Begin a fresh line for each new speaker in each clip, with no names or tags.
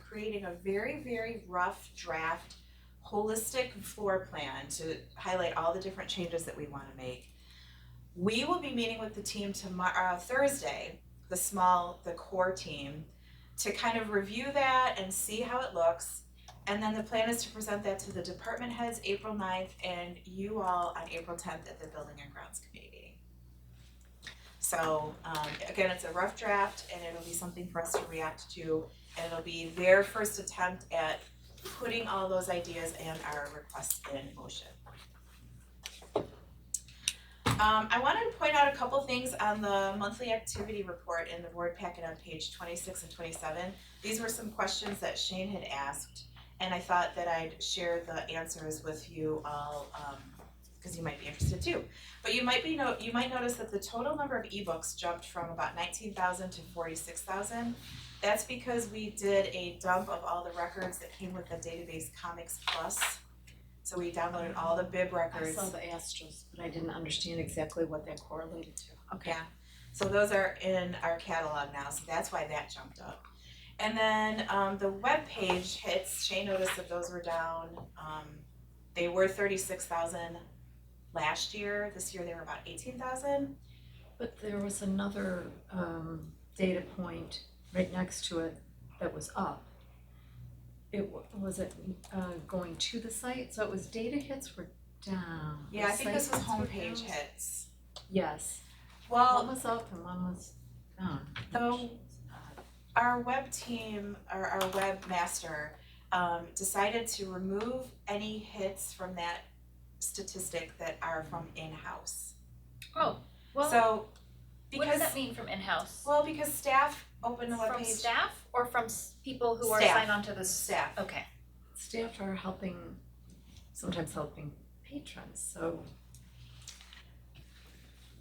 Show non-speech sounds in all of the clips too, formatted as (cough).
creating a very, very rough draft holistic floor plan to highlight all the different changes that we wanna make. We will be meeting with the team tomorrow, uh, Thursday, the small, the core team, to kind of review that and see how it looks. And then the plan is to present that to the department heads April 9th and you all on April tenth at the Building and Grounds Committee meeting. So um again, it's a rough draft and it'll be something for us to react to and it'll be their first attempt at putting all those ideas and our requests in motion. Um I wanted to point out a couple things on the monthly activity report in the board packet on page twenty six and twenty seven. These were some questions that Shane had asked and I thought that I'd share the answers with you all um because you might be interested too. But you might be no, you might notice that the total number of ebooks jumped from about nineteen thousand to forty-six thousand. That's because we did a dump of all the records that came with the database Comics Plus. So we downloaded all the bib
I
records.
saw the asterisks, but I didn't understand exactly what that correlated to. Okay.
Yeah, so those are in our catalog now, so that's why that jumped up. And then um the webpage hits, Shay noticed that those were down, um they were thirty-six thousand last year, this year they were about eighteen thousand.
But there was another um data point right next to it that was up. It wa- was it uh going to the site, so it was data hits were down.
Yeah, I think this was
Site
homepage
hits were down.
hits.
Yes, one
Well,
was up and one was down.
So- our web team or our webmaster um decided to remove any hits from that statistic that are from in-house.
Oh, well,
So
what does
because
that mean from in-house?
well because staff open the
From
webpage
staff or from s- people who are
Staff.
signed on to this?
Staff.
Okay,
Staff are helping, sometimes helping patrons, so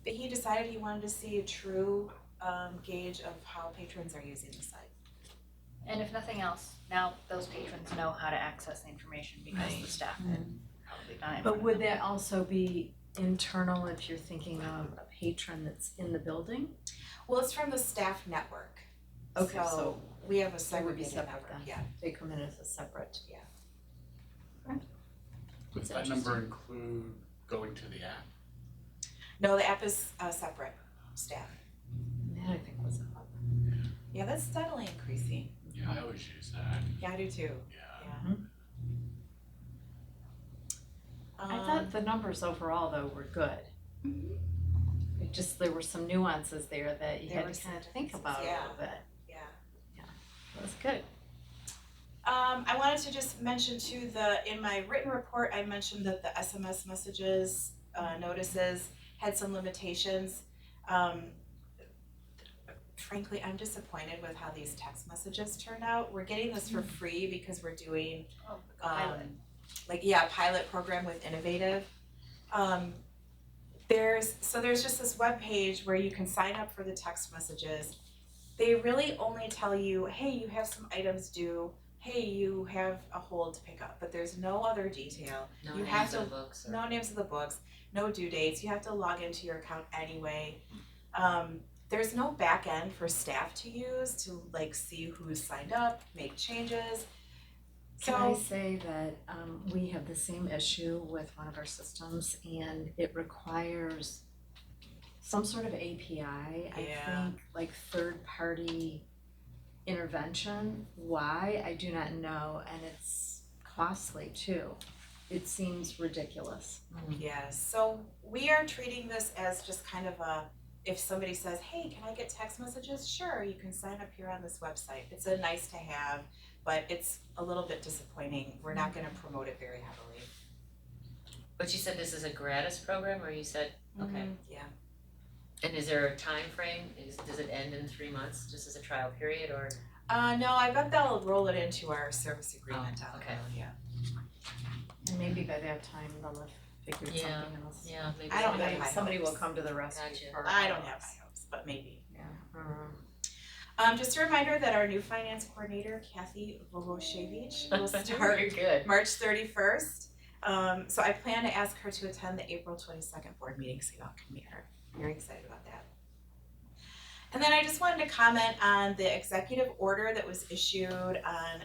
but he decided he wanted to see a true um gauge of how patrons are using the site.
and if nothing else, now those patrons know how to access the information because the staff had probably done it. in front
But
of
would
them.
that also be internal if you're thinking of a patron that's in the building?
Well, it's from the staff network.
Okay,
So,
so
We have a
That would be
segregated
separate
network,
then.
yeah.
they come in as a separate.
Does that number include going to the app?
No, the app is uh separate staff.
And That I think was up.
Yeah, that's steadily increasing.
Yeah, I always use that,
Yeah, I do too.
yeah.
Mm-hmm.
Yeah. Um,
I thought the numbers overall though were good. It just, there were some nuances there that you
There were
had to
some
kind of think
differences,
about a
yeah.
little bit.
yeah.
It was good.
Um, I wanted to just mention too, the, in my written report, I mentioned that the SMS messages, uh, notices had some limitations. Um, frankly, I'm disappointed with how these text messages turned out. We're getting this for free because we're doing
Oh, pilot.
um like yeah, pilot program with Innovative. Um there's so there's just this web page where you can sign up for the text messages. They really only tell you, hey, you have some items due, hey, you have a hold to pick up, but there's no other detail.
No,
You
you
have
have
to-
the books or
No names of the books, no due dates, you have to log into your account anyway. Um there's no back end for staff to use to like see who's signed up, make changes. So
Can I say that um we have the same issue with one of our systems and it requires some sort of API, I
Yeah.
think, like third party intervention. Why, I do not know, and it's costly too. It seems ridiculous.
Yes, so we are treating this as just kind of a, if somebody says, hey, can I get text messages? Sure, you can sign up here on this website. It's a nice to have, but it's a little bit disappointing. We're not gonna promote it very heavily.
but you said this is a gratis program or you said okay
Mm-hmm. Yeah.
and is there a time frame is does it end in three months just as a trial period or
Uh, no, I bet they'll roll it into our service agreement down the
Oh, okay.
road, yeah.
And maybe by that time they'll have figured
Yeah,
something else.
yeah maybe
I don't
somebody-
have high
Somebody will
hopes.
come to the rescue
Gotcha.
for
I don't
us.
have high hopes, but maybe.
Yeah. Um,
Um, just a reminder that our new finance coordinator, Kathy
(laughs)
Vogoshevich, will start
You're good
March thirty first. Um, so I plan to ask her to attend the April twenty second board meeting so y'all can meet her. Very excited about that. And then I just wanted to comment on the executive order that was issued on